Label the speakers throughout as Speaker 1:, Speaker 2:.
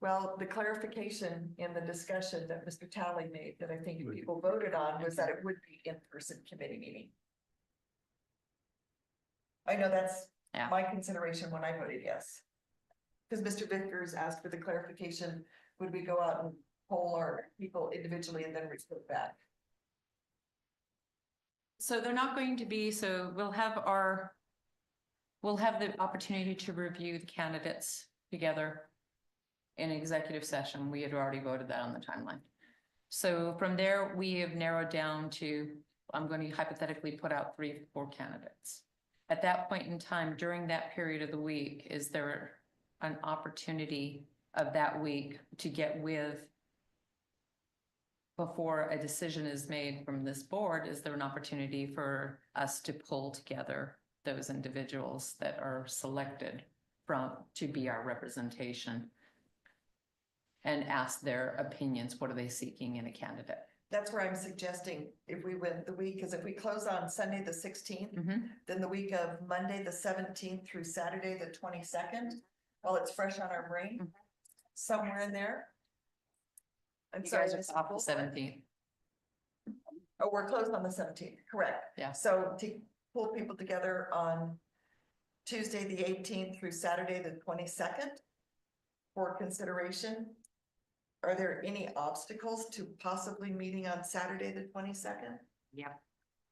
Speaker 1: Well, the clarification in the discussion that Mr. Talley made that I think people voted on was that it would be in-person committee meeting. I know that's
Speaker 2: Yeah.
Speaker 1: my consideration when I voted yes. Because Mr. Vickers asked for the clarification, would we go out and poll our people individually and then report back?
Speaker 2: So they're not going to be, so we'll have our, we'll have the opportunity to review the candidates together in executive session. We had already voted that on the timeline. So from there, we have narrowed down to, I'm going to hypothetically put out three, four candidates. At that point in time, during that period of the week, is there an opportunity of that week to get with before a decision is made from this board, is there an opportunity for us to pull together those individuals that are selected from, to be our representation? And ask their opinions, what are they seeking in a candidate?
Speaker 1: That's where I'm suggesting if we went the week, because if we close on Sunday, the sixteenth,
Speaker 2: Mhm.
Speaker 1: then the week of Monday, the seventeenth through Saturday, the twenty-second, while it's fresh on our brain,
Speaker 2: Mhm.
Speaker 1: somewhere in there. I'm
Speaker 2: You
Speaker 1: sorry,
Speaker 2: guys
Speaker 1: Ms.
Speaker 2: are off the
Speaker 1: Wolf.
Speaker 2: seventeenth,
Speaker 1: Oh, we're closed on the seventeenth, correct.
Speaker 2: Yeah.
Speaker 1: So to pull people together on Tuesday, the eighteenth through Saturday, the twenty-second for consideration. Are there any obstacles to possibly meeting on Saturday, the twenty-second?
Speaker 2: Yep.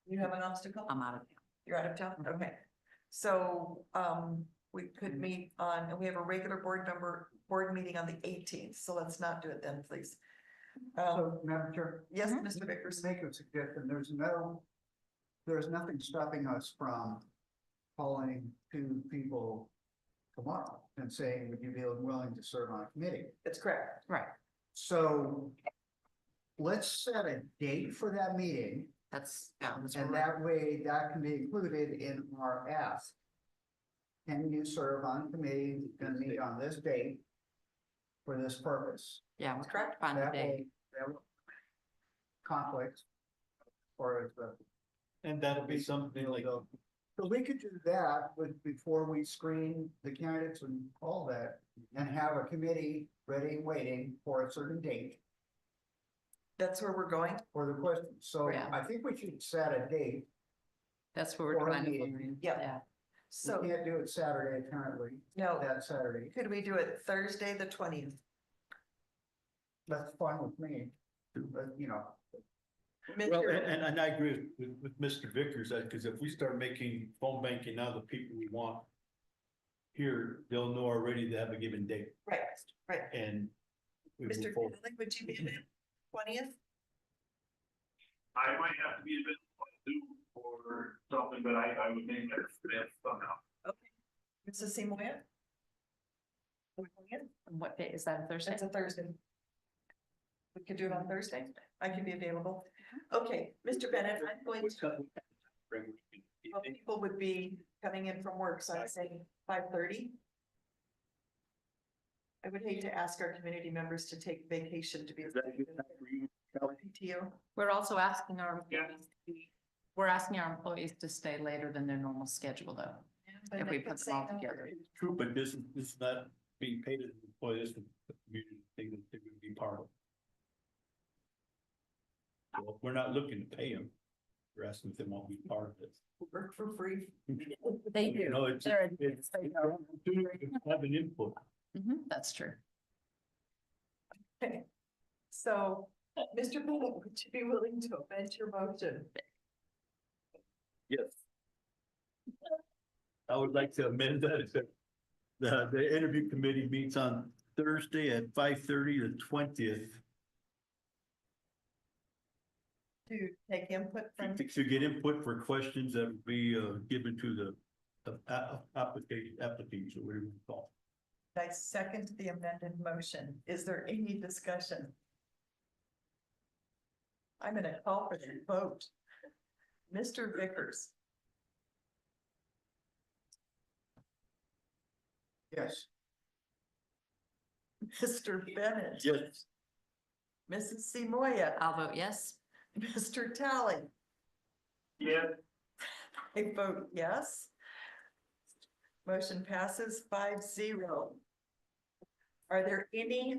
Speaker 1: You have an obstacle?
Speaker 2: I'm out of town.
Speaker 1: You're out of town?
Speaker 2: Mhm.
Speaker 1: Okay. So, um, we could
Speaker 2: Mhm.
Speaker 1: meet on, and we have a regular board member, board meeting on the eighteenth, so let's not do it then, please. Um,
Speaker 3: So, Madam Chair.
Speaker 1: yes,
Speaker 2: Mhm.
Speaker 1: Mr. Vickers,
Speaker 3: Just make a suggestion, there's no, there's nothing stopping us from calling two people tomorrow and saying, would you be willing to serve on a committee?
Speaker 1: it's correct.
Speaker 2: Right,
Speaker 3: So let's set a date for that meeting,
Speaker 2: that's. yeah, that's
Speaker 3: and
Speaker 2: where we're-
Speaker 3: that way that can be included in our ask. Can you serve on a committee, gonna meet on this date for this purpose?
Speaker 2: Yeah, we're trying to
Speaker 1: Correct.
Speaker 2: find a
Speaker 3: That
Speaker 2: day.
Speaker 3: will, that will conflict or the.
Speaker 4: And that'll be something like,
Speaker 3: availability. So we could do that with, before we screen the candidates and all that, and have a committee ready, waiting for a certain date
Speaker 1: That's where we're going.
Speaker 3: for the question. So
Speaker 2: Yeah.
Speaker 3: I think we should set a date.
Speaker 2: That's where we're
Speaker 3: Or a
Speaker 2: trying to.
Speaker 3: meeting.
Speaker 2: find-
Speaker 1: Yeah.
Speaker 2: Yeah,
Speaker 3: We
Speaker 1: So,
Speaker 3: can't do it Saturday apparently,
Speaker 1: no,
Speaker 3: that Saturday.
Speaker 1: could we do it Thursday, the twentieth?
Speaker 3: That's fine with me, but you know,
Speaker 4: well, and, and- and I agree with, with Mr. Vickers, that, because if we start making phone banking now the people we want here, they'll know already they have a given date
Speaker 1: Right, right.
Speaker 4: and we
Speaker 1: Mr.
Speaker 4: move
Speaker 1: Finley,
Speaker 4: forward.
Speaker 1: would you be available twentieth?
Speaker 5: I might have to be available on Zoom or something, but I, I would name it somehow.
Speaker 1: Mrs. Seymour?
Speaker 2: And what day is that, Thursday?
Speaker 1: It's a Thursday. We could do it on Thursday. I can be available.
Speaker 4: Mm-hmm.
Speaker 1: Okay, Mr. Bennett, I'm going to, well, people would be coming in from work, so I'm saying five thirty. I would hate to ask our community members to take vacation to be. PTO.
Speaker 2: We're also asking our
Speaker 5: Yeah.
Speaker 2: employees, to be- we're asking our employees to stay later than their normal schedule though.
Speaker 1: But
Speaker 2: If we
Speaker 1: I could
Speaker 2: put them
Speaker 1: say
Speaker 2: all
Speaker 1: no.
Speaker 2: together.
Speaker 4: True, but this, is- this is not being paid as an employee, this is the community thing that they would be part of. Well, We're not looking to pay them. We're asking if they want to be part of this.
Speaker 1: Work for free.
Speaker 2: They
Speaker 4: You know, it's,
Speaker 2: They're
Speaker 4: it's,
Speaker 2: they
Speaker 4: it's an opportunity to have an input.
Speaker 1: Mm-hmm,
Speaker 2: Mhm, that's true.
Speaker 1: So, Mr. Bennett, would you be willing to amend your motion?
Speaker 4: Yes. I would like to amend that. to- The, the interview committee meets on Thursday at five thirty, the twentieth,
Speaker 1: To take input from,
Speaker 4: to get input for questions that would be, uh, given to the, the a- application, applicants, or whatever you call.
Speaker 1: I second the amended motion. Is there any discussion? I'm gonna call for the vote. Mr. Vickers,
Speaker 3: yes,
Speaker 1: Mr. Bennett,
Speaker 4: it. Yes.
Speaker 1: Mrs. Seymour,
Speaker 2: I'll vote yes.
Speaker 1: Mr. Tally.
Speaker 5: Yeah,
Speaker 1: I vote yes. Motion passes five zero. Are there any